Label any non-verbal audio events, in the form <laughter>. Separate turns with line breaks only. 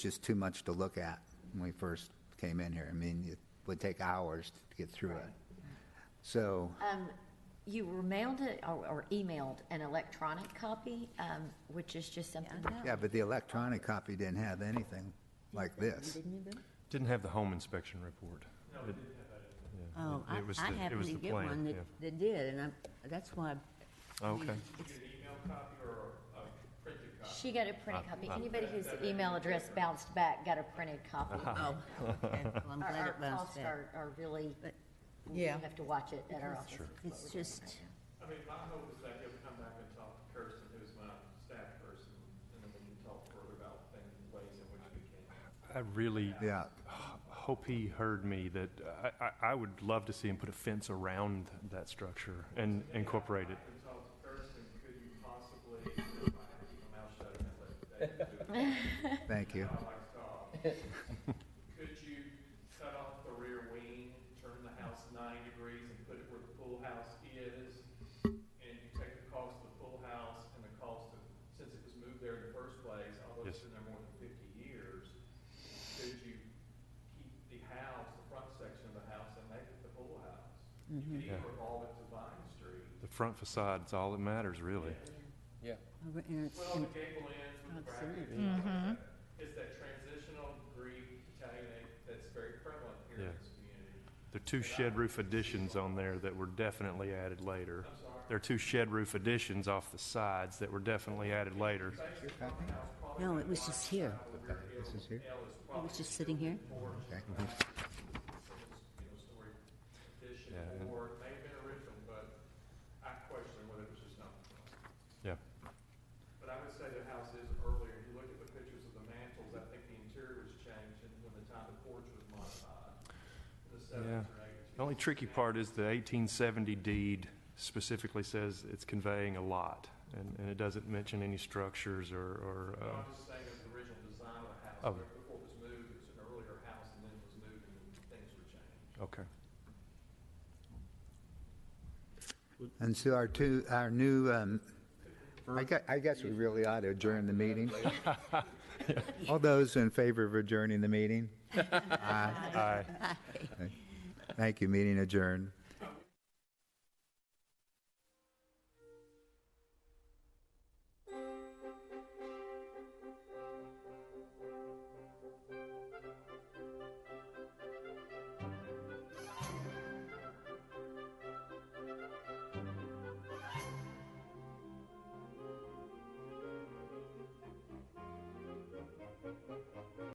just too much to look at when we first came in here. I mean, it would take hours to get through it. So,
You were mailed it or, or emailed an electronic copy, um, which is just something.
yeah, but the electronic copy didn't have anything like this.
Didn't have the home inspection report. It- yeah,
Oh,
it-
I,
it was
I
the- it
happened
was
to
the
get
plan,
one that,
yeah.
that did, and I, that's why. I
Oh,
mean,
okay.
it's-
She got a printed copy. Anybody whose email address bounced back got a printed copy.
Oh, okay, well, I'm
Our,
glad
our
it
costs
bounced back.
are, are really,
But-
we
yeah.
have to watch it at our office.
It's just,
I mean, my hope is that he'll come back and talk to Kirsten, who's my staff person, and then we can talk further about things, ways in which we can.
I really
Yeah,
hope he heard me that I, I, I would love to see him put a fence around that structure and incorporate it.
And talk to Kirsten, could you possibly, if I had to keep my mouth shut and let David do it,
<laughs> thank you.
I like to talk. Could you cut off the rear wing, turn the house nine degrees and put it where the pool house is? And you take the cost of the pool house and the cost of, since it was moved there in the first place, although it's
Yes.
been there more than fifty years, could you keep the house, the front section of the house and make it the pool house? You
Mm-hmm.
could even
Yeah.
revolve it to Vine Street.
The front facade's all that matters, really.
over- and it's-
Well, the gable ends with the brackets,
Absolutely.
and all
Mm-hmm.
that. it's that transitional Greek Italianate that's very prevalent here in
Yeah.
this community.
There are two shed roof additions on there that were definitely added later. There are two shed roof additions off the sides that were definitely added later.
no, it was just here.
This is here?
It was just sitting here.
Okay.
You know, story addition,
Yeah, and-
or it may have been original, but I question whether it was just not.
Yeah,
But I would say the house is earlier, you look at the pictures of the mantles, I think the interior was changed and when the time the porch was modified. in
yeah. Oh,
The seventies or eighties.
The only tricky part is the 1870 deed specifically says it's conveying a lot, and, and it doesn't mention any structures or, or,
No,
uh,
I'm just saying of the original design of the house,
Oh.
but before it was moved, it was an earlier house and then it was moved and things were changed.
okay.
And so our two, our new, um, I gue- I guess we really ought to adjourn the meeting. All those in favor of adjourning the meeting?
Aye.
Thank you, meeting adjourned.